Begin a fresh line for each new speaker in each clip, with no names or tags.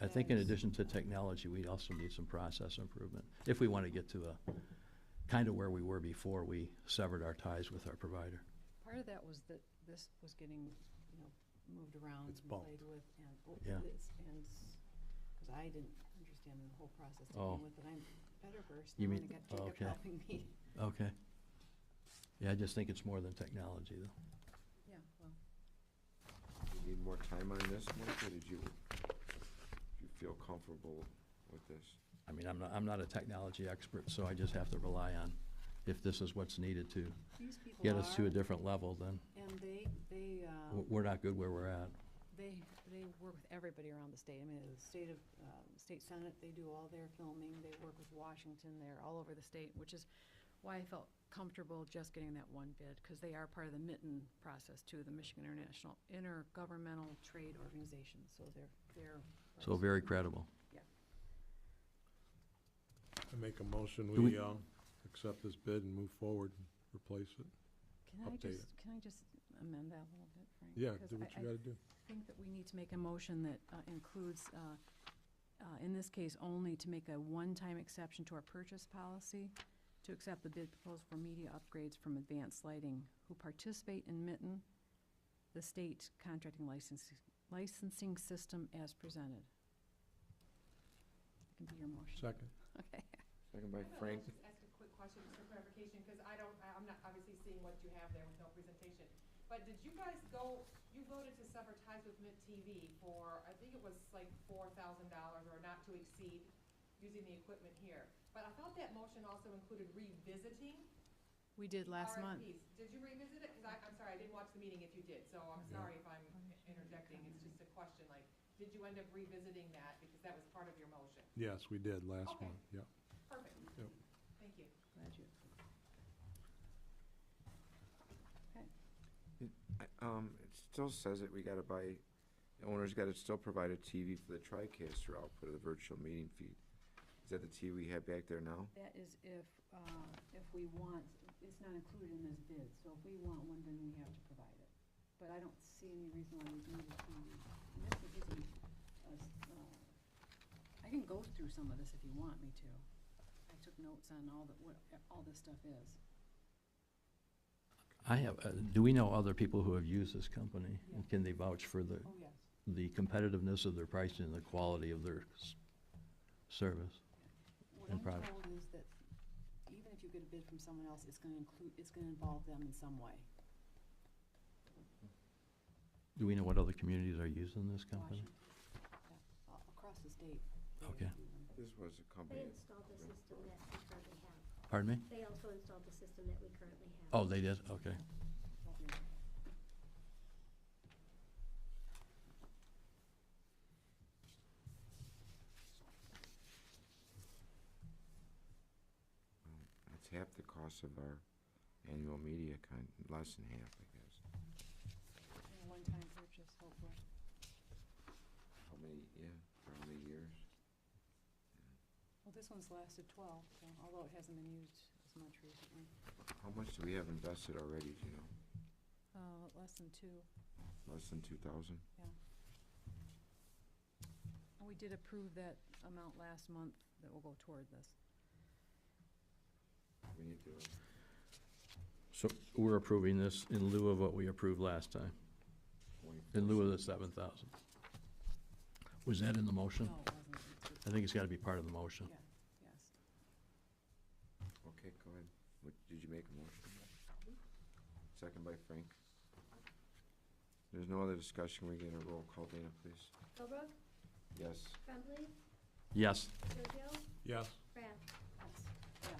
I think in
Yes.
addition to technology, we also need some process improvement, if we want to get to a, kind of where we were before we severed our ties with our provider.
Part of that was that this was getting, you know, moved around
It's
and
bumped.
played with and, oh,
Yeah.
it's, and, because I didn't understand the whole process to
Oh.
begin with, and I'm better versed
You
now, and I
mean- Oh,
got Jacob
okay.
helping me.
Okay. Yeah, I just think it's more than technology, though.
Yeah, well,
Do you need more time on this, Mike, or did you, do you feel comfortable with this?
I mean, I'm not, I'm not a technology expert, so I just have to rely on if this is what's needed to
these people
get us to a
are,
different level, then
and they, they, uh,
w- we're not good where we're at.
they, they work with everybody around the state. I mean, the state of, um, state senate, they do all their filming, they work with Washington, they're all over the state, which is why I felt comfortable just getting that one bid, because they are part of the mitten process too, the Michigan International Intergovernmental Trade Organization, so they're, they're.
So very credible.
Yeah.
I make a motion,
Do
we,
we-
uh, accept this bid and move forward, and replace it.
Can I
Update
just, can I just amend that a little bit, Frank?
Yeah,
'Cause
do
I-
what
I
you gotta do.
think that we need to make a motion that uh, includes, uh, uh, in this case only, to make a one-time exception to our purchase policy, to accept the bid proposal for media upgrades from Advanced Lighting, who participate in Mitten, the state contracting licensing, licensing system as presented. That can be your motion.
Second,
Okay.
Second by
I thought I
Frank.
was just ask a quick question, just for clarification, because I don't, I- I'm not obviously seeing what you have there with no presentation. But did you guys go, you voted to sever ties with Mint TV for, I think it was like four thousand dollars or not to exceed using the equipment here. But I thought that motion also included revisiting
We did last month.
RFPs. Did you revisit it? Because I, I'm sorry, I didn't watch the meeting if you did, so I'm sorry if I'm interjecting. It's just a question, like, did you end up revisiting that? Because that was part of your motion.
yes, we did last
Okay.
one, yeah.
Perfect.
Yep.
Thank you.
Glad you.
I- Um, it still says that we gotta buy, the owner's gotta still provide a TV for the TriCaster output of the virtual meeting feed. Is that the TV we have back there now?
That is if, uh, if we want, it's not included in this bid, so if we want one, then we have to provide it. But I don't see any reason why we need it. And this is just a- a s- uh, I can go through some of this if you want me to. I took notes on all the, what, all this stuff is.
I have, uh, do we know other people who have used this company?
Yeah.
And can they vouch for the,
Oh, yes.
the competitiveness of their pricing and the quality of their s- service?
What
And
I'm
product.
told is that even if you get a bid from someone else, it's gonna include, it's gonna involve them in some way.
Do we know what other communities are using this company?
Washington, yeah, a- across the state. they
Okay.
do them.
This was a company.
They installed the system that we currently have.
Pardon me?
They also installed the system that we currently have.
Oh, they did, okay.
It's half the cost of our annual media con, less than half, I guess.
And a One-time purchase, hopefully.
How many, yeah, for how many years?
Well, this one's lasted 12, so- although it hasn't been used as much recently.
How much do we have invested already, do you know?
Uh, Less than two,
Less than two thousand?
yeah. And we did approve that amount last month that will go toward this.
We need to,
So we're approving this in lieu of what we approved last time, in lieu of the seven thousand. Was that in the motion?
No, it wasn't. It's-
I think it's gotta be part of the motion.
Yeah, yes.
Okay, go ahead. What, did you make a motion? Second by Frank. There's no other discussion. We get a roll call, Dana, please.
Philbrook,
Yes.
Crumbly,
Yes,
Jojo,
Yes,
Kraft.
Yes, yes.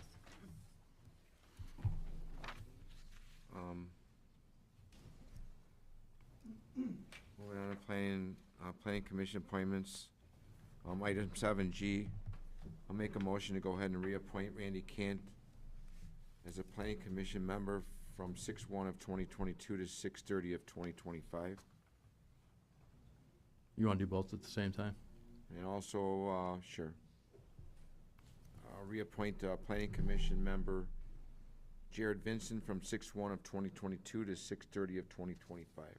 Um, Moving on to planning, uh, planning commission appointments. Um, item seven G, I'll make a motion to go ahead and reappoint Randy Cant as a planning commission member from six one of twenty twenty-two to six thirty of twenty twenty-five.
you wanna do both at the same time?
And also, uh, sure. Uh, reappoint, uh, planning commission member Jared Vincent from six one of twenty twenty-two to six thirty of twenty twenty-five.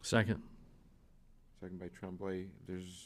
Second.
Is second by Tremblay. There's